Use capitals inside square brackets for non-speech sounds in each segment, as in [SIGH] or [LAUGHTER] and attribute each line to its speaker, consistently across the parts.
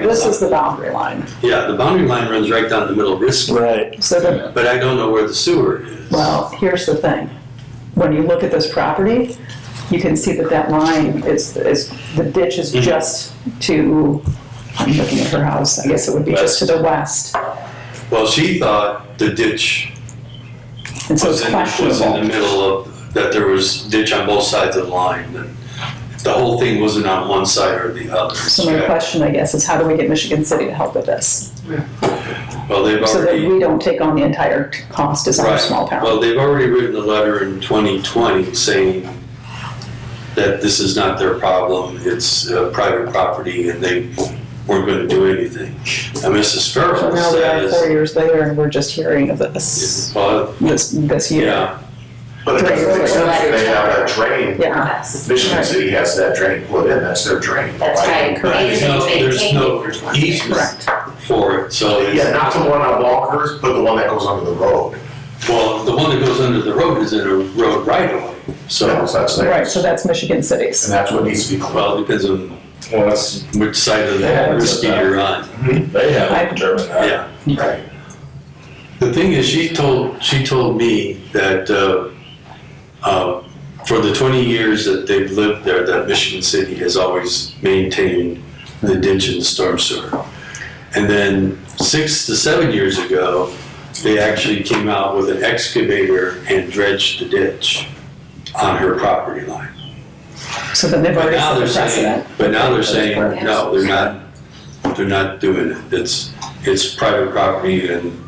Speaker 1: this is the boundary line.
Speaker 2: Yeah, the boundary line runs right down the middle of Risky,
Speaker 3: Right.
Speaker 1: So the,
Speaker 2: but I don't know where the sewer is.
Speaker 1: well, here's the thing. When you look at this property, you can see that that line is, is, the ditch is
Speaker 2: Mhm.
Speaker 1: just to, I'm looking at her house, I guess it would be just to the west.
Speaker 2: Well, she thought the ditch
Speaker 1: And so
Speaker 2: was
Speaker 1: it's
Speaker 2: in, was in the
Speaker 1: questionable.
Speaker 2: middle of, that there was ditch on both sides of the line. and The whole thing wasn't on one side or the other.
Speaker 1: So my question, I guess, is how do we get Michigan City to help with this?
Speaker 2: Well, they've
Speaker 1: So that
Speaker 2: already,
Speaker 1: we don't take on the entire t- cost as our
Speaker 2: right,
Speaker 1: small town.
Speaker 2: well, they've already written a letter in 2020 saying that this is not their problem, it's uh, private property, and they weren't gonna do anything. And Mrs.
Speaker 1: So
Speaker 2: Farrell
Speaker 1: now we are four
Speaker 2: says,
Speaker 1: years later and we're just hearing of this,
Speaker 2: well,
Speaker 1: this, this year.
Speaker 2: yeah,
Speaker 4: But it doesn't make sense if they have that drain.
Speaker 1: Yeah.
Speaker 5: Yes.
Speaker 4: Michigan City has that drain put in, that's their drain.
Speaker 5: That's right.
Speaker 2: There's no- there's no
Speaker 1: Correct.
Speaker 2: easement for it, so it's.
Speaker 4: Yeah, not the one on Walker's, but the one that goes under the road.
Speaker 2: Well, the one that goes under the road is in a road right of way, so,
Speaker 4: So that's, that's
Speaker 1: Right,
Speaker 4: theirs.
Speaker 1: so
Speaker 4: And
Speaker 1: that's Michigan City's.
Speaker 4: that's what needs to be cleaned.
Speaker 2: well, it depends on
Speaker 6: Well, that's,
Speaker 2: which side of
Speaker 6: Yeah,
Speaker 2: the
Speaker 6: it's
Speaker 2: risky
Speaker 6: about-
Speaker 2: you're on,
Speaker 4: Mm-hmm.
Speaker 6: they haven't determined that.
Speaker 2: yeah.
Speaker 4: Right.
Speaker 2: The thing is, she told, she told me that, uh, uh, for the twenty years that they've lived there, that Michigan City has always maintained the ditch and the storm sewer. And then six to seven years ago, they actually came out with an excavator and dredged the ditch on her property line.
Speaker 1: So then they've
Speaker 2: But
Speaker 1: already
Speaker 2: now
Speaker 1: set
Speaker 2: they're
Speaker 1: the
Speaker 2: saying,
Speaker 1: precedent.
Speaker 2: but now they're saying,
Speaker 5: correct.
Speaker 2: no, they're not, they're not doing it. It's, it's private property and,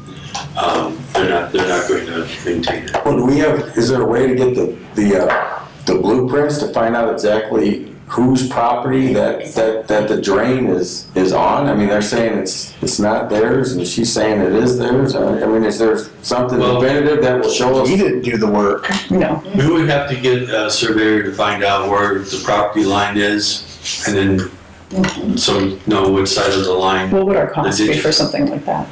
Speaker 2: um, they're not, they're not going to maintain
Speaker 1: Mm-hmm.
Speaker 2: it.
Speaker 7: Well, do we have, is there a way to get the, the, uh, the blueprints to find out exactly whose property that, that, that the drain is, is on? I mean, they're saying it's, it's not theirs, and she's saying it is theirs, I I mean, is there something
Speaker 2: Well-
Speaker 7: definitive that will show us?
Speaker 3: He didn't do the work.
Speaker 1: No,
Speaker 2: We would have to get a surveyor to find out where the property line is and
Speaker 1: Mm-hmm.
Speaker 2: then so we know which side of the line.
Speaker 1: what would our cost
Speaker 2: Did
Speaker 1: be
Speaker 2: you-
Speaker 1: for something like that?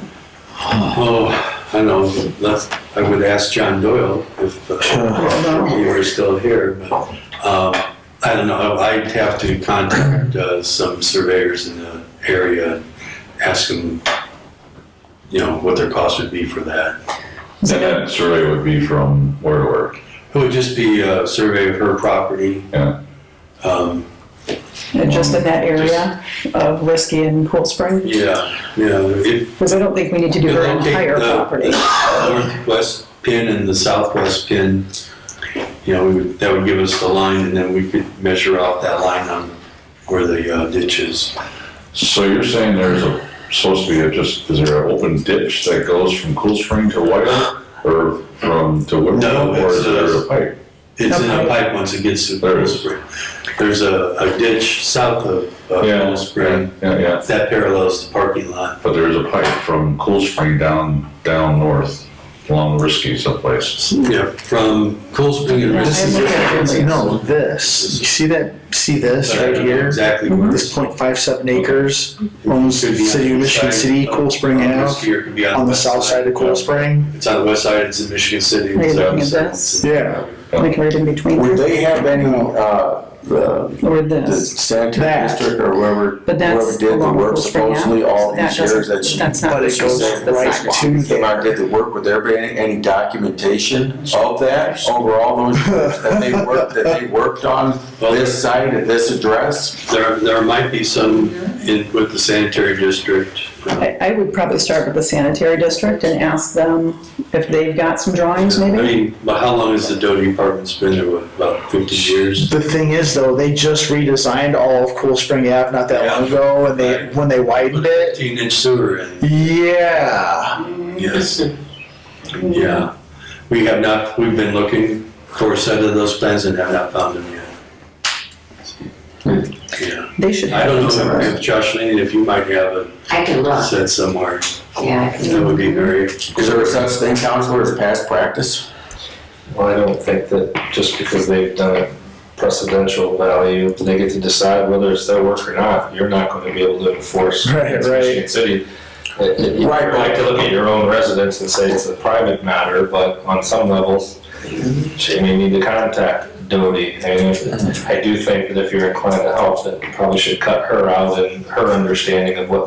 Speaker 2: Oh, I don't know, that's, I would ask John Doyle if uh, he were still here, but, um, I don't know, I'd have to contact, uh, some surveyors in the area, and ask them, you know, what their cost would be for that.
Speaker 6: And that survey would be from where to where?
Speaker 2: It would just be a survey of her property.
Speaker 6: Yeah.
Speaker 2: Um,
Speaker 1: And just in that area of Risky and Cool Spring?
Speaker 2: yeah, yeah, if,
Speaker 1: Because I don't think we need to do
Speaker 2: You
Speaker 1: her
Speaker 2: locate
Speaker 1: entire
Speaker 2: the-
Speaker 1: property.
Speaker 2: the Northwest pin and the southwest pin, you know, we would- that would give us the line, and then we could measure out that line on where the uh, ditch is.
Speaker 6: So you're saying there's a, supposed to be a just, is there an open ditch that goes from Cool Spring to White Oak? Or from, to
Speaker 2: No,
Speaker 6: Whitmore, or
Speaker 2: it's
Speaker 6: is
Speaker 2: a-
Speaker 6: there a pipe?
Speaker 2: It's in a
Speaker 1: Okay.
Speaker 2: pipe once it gets to
Speaker 6: There
Speaker 2: Cool
Speaker 6: is.
Speaker 2: Spring. There's a a ditch south of uh,
Speaker 6: Yeah.
Speaker 2: Cool Spring
Speaker 6: Yeah, yeah,
Speaker 2: that parallels the parking lot.
Speaker 6: but there is a pipe from Cool Spring down, down north, along Risky someplace.
Speaker 2: Yeah, from Cool Spring to
Speaker 1: This is-
Speaker 2: Risky.
Speaker 3: No, this. You see that? See this
Speaker 2: I
Speaker 3: right
Speaker 2: don't know
Speaker 3: here?
Speaker 2: Exactly where.
Speaker 3: This point five seven acres owns
Speaker 2: Could be on
Speaker 3: City
Speaker 2: the
Speaker 3: of Michigan
Speaker 2: side
Speaker 3: City,
Speaker 2: of-
Speaker 3: Cool Spring
Speaker 2: on
Speaker 3: Ave,
Speaker 2: Risky, or it could be
Speaker 3: on the
Speaker 2: west
Speaker 3: south side of Cool Spring.
Speaker 2: It's on the west side, it's in Michigan City.
Speaker 1: Are you
Speaker 2: So
Speaker 1: looking at
Speaker 2: it's-
Speaker 1: this?
Speaker 3: Yeah,
Speaker 1: We can read in between
Speaker 7: Would
Speaker 1: there,
Speaker 7: they have any, uh, the,
Speaker 1: or
Speaker 7: the
Speaker 1: this.
Speaker 7: sanitary
Speaker 3: That.
Speaker 7: district or whoever,
Speaker 1: But that's
Speaker 7: whoever did the
Speaker 1: along
Speaker 7: work
Speaker 1: Cool Spring Ave,
Speaker 7: supposedly all
Speaker 1: so that
Speaker 7: these years
Speaker 1: doesn't-
Speaker 7: that she
Speaker 1: That's not
Speaker 3: but
Speaker 1: what
Speaker 3: it
Speaker 1: she says,
Speaker 3: goes
Speaker 1: the
Speaker 3: right
Speaker 1: sidewalk.
Speaker 3: to
Speaker 7: If I
Speaker 3: there.
Speaker 7: did the work, would there be any, any documentation of that over all those years that
Speaker 8: [LAUGHS]
Speaker 7: they worked, that they worked on this site at this address?
Speaker 2: There, there might be some in, with the sanitary district. uh,
Speaker 1: I, I would probably start with the sanitary district and ask them if they've got some drawings
Speaker 2: I
Speaker 1: maybe?
Speaker 2: mean, but how long has the Doty apartments been there, What, about fifty years?
Speaker 3: The thing is, though, they just redesigned all of Cool Spring Ave not that long ago, and they when they
Speaker 2: Put
Speaker 3: widened
Speaker 2: a
Speaker 3: it.
Speaker 2: Fifteen inch sewer in,
Speaker 3: Yeah,
Speaker 2: yes. Yeah, we have not, we've been looking for a set of those plans and have not found them yet. Yeah,
Speaker 1: They should
Speaker 2: I
Speaker 1: have
Speaker 2: don't
Speaker 1: them
Speaker 2: know
Speaker 1: somewhere.
Speaker 2: if Josh Lane, if you might have
Speaker 5: I can
Speaker 2: a
Speaker 5: look,
Speaker 2: set somewhere,
Speaker 5: yeah. I
Speaker 2: that
Speaker 5: can
Speaker 2: would
Speaker 5: look.
Speaker 2: be very.
Speaker 7: Is there such thing, counselor, as past practice?
Speaker 8: Well, I don't think that just because they've done a precedential value, they get to decide whether it's their work or not. You're not going to be able to enforce
Speaker 3: Right,
Speaker 8: against
Speaker 3: right.
Speaker 8: Michigan City. It- it- You
Speaker 7: Right,
Speaker 8: might like to look at your own residents and say it's a private matter, but on some levels, she may need to contact Doty. And I do think that if you're inclined to help, that you probably should cut her out and her understanding of what